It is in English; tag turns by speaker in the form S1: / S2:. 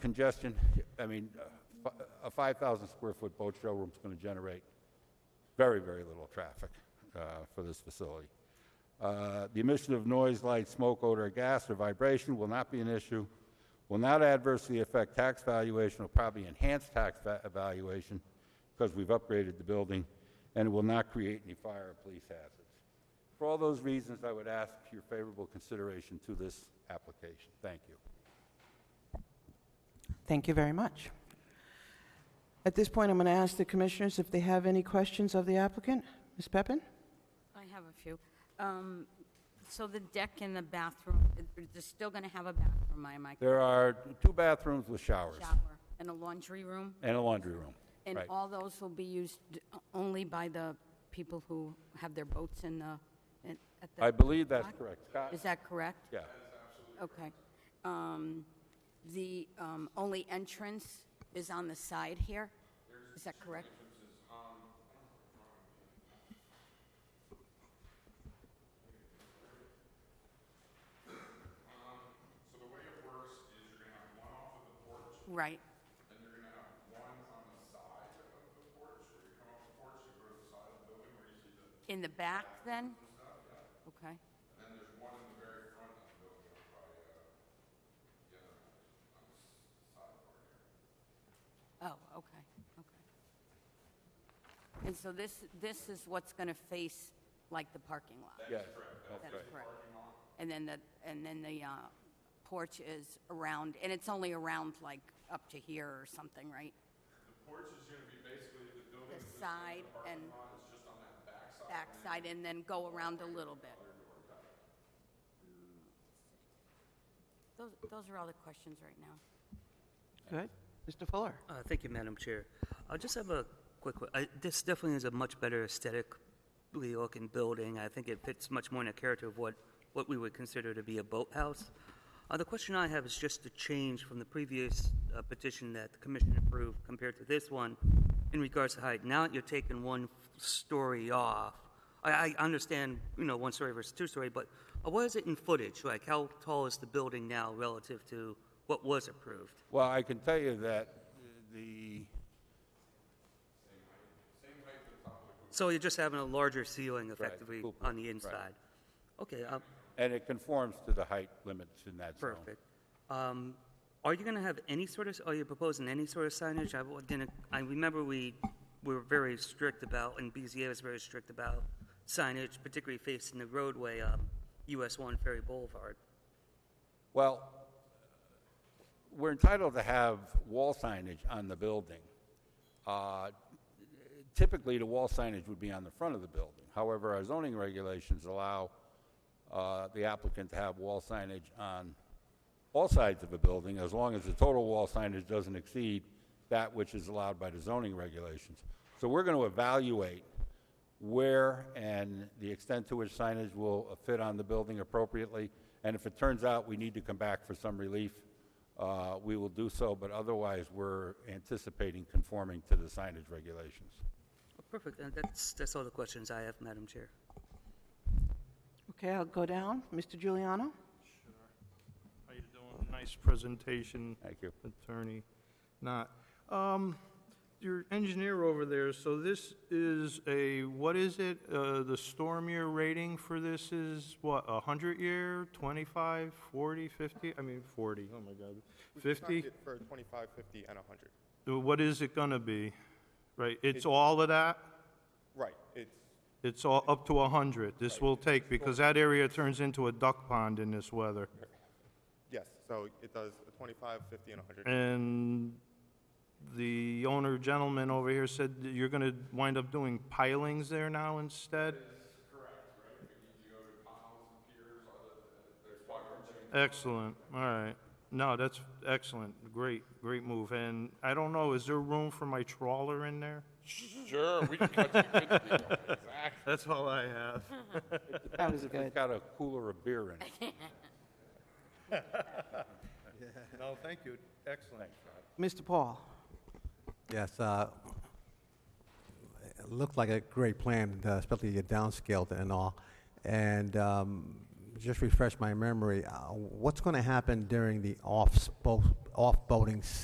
S1: congestion, I mean, uh, fi- a 5,000 square foot boat showroom's going to generate very, very little traffic uh, for this facility. Uh, The emission of noise, light, smoke, odor, gas, or vibration will not be an issue, will not adversely affect tax valuation, will probably enhance tax va- valuation because we've upgraded the building, and it will not create any fire or police hazards. For all those reasons, I would ask your favorable consideration to this application. Thank you.
S2: Thank you very much. At this point, I'm going to ask the commissioners if they have any questions of the applicant. Ms. Peppin?
S3: I have a few. Um, So the deck and the bathroom, they're still going to have a bathroom, am I
S1: There are two bathrooms with showers
S3: Shower and a laundry room?
S1: and a laundry room.
S3: And
S1: Right.
S3: all those will be used only by the people who have their boats in the, in- at the...
S1: I believe that's correct. Scott?
S3: Is that correct?
S1: Yeah.
S3: Okay. Um, The um, only entrance is on the side here? Is that correct? Right. In the back, then? Okay. uh, Oh, okay, okay. And so this, this is what's going to face like the parking lot?
S1: Yes, that's right.
S3: That's correct. And then the, and then the uh, porch is around, and it's only around like up to here or something, right? The porch is going to be basically the building. The side and. just on that backside. and then go around a little bit. Those, those are all the questions right now.
S2: Good. Mr. Fuller?
S4: Uh, Thank you, Madam Chair. I just have a quick, que- I- this definitely is a much better aesthetically looking building. I think it fits much more in the character of what, what we would consider to be a boathouse. Uh, The question I have is just the change from the previous uh, petition that the commission approved compared to this one in regards to height. Now that you're taking one story off, I, I understand, you know, one story versus two story, but uh, what is it in footage? Like, how tall is the building now relative to what was approved?
S1: Well, I can tell you that the,
S4: So you're just having a larger ceiling effectively
S1: cool, cool,
S4: on the inside? Okay, uh,
S1: and it conforms to the height limits in that zone.
S4: perfect. Um, Are you going to have any sort of, are you proposing any sort of signage? I wa- didn't, I remember we were very strict about, and BZA was very strict about signage, particularly facing the roadway, um, US 1 Ferry Boulevard.
S1: Well, we're entitled to have wall signage on the building. Uh, Typically, the wall signage would be on the front of the building. However, our zoning regulations allow uh, the applicant to have wall signage on all sides of a building as long as the total wall signage doesn't exceed that which is allowed by the zoning regulations. So we're going to evaluate where and the extent to which signage will fit on the building appropriately. And if it turns out we need to come back for some relief, uh, we will do so, but otherwise, we're anticipating conforming to the signage regulations.
S4: Oh, Perfect, Uh, that's, that's all the questions I have, Madam Chair.
S2: Okay, I'll go down. Mr. Giuliano?
S5: How you doing? Nice presentation,
S1: Thank you.
S5: Attorney Not Um, your engineer over there, so this is a, what is it? Uh, the storm year rating for this is what, a hundred year, 25, 40, 50? I mean, 40, oh my God,
S6: We've
S5: 50?
S6: marked it For 25, 50, and 100.
S5: Uh, What is it gonna be? Right, it's all of that?
S6: Right, it's,
S5: It's all up to 100? This will take, because that area turns into a duck pond in this weather.
S6: yes, so it does a 25, 50, and 100.
S5: And the owner gentleman over here said that you're going to wind up doing pilings there now instead? Excellent, all right. No, that's excellent, great, great move. And I don't know, is there room for my trawler in there?
S7: Sure, we can cut you a good deal. Exactly.
S5: That's all I have.
S2: That was
S1: It's
S2: good.
S1: got a cooler of beer in it.
S5: No, thank you, excellent.
S2: Mr. Paul?
S8: Yes, uh, it looked like a great plan, uh, especially your downscaled and all. And um, just refresh my memory, uh, what's going to happen during the off-boating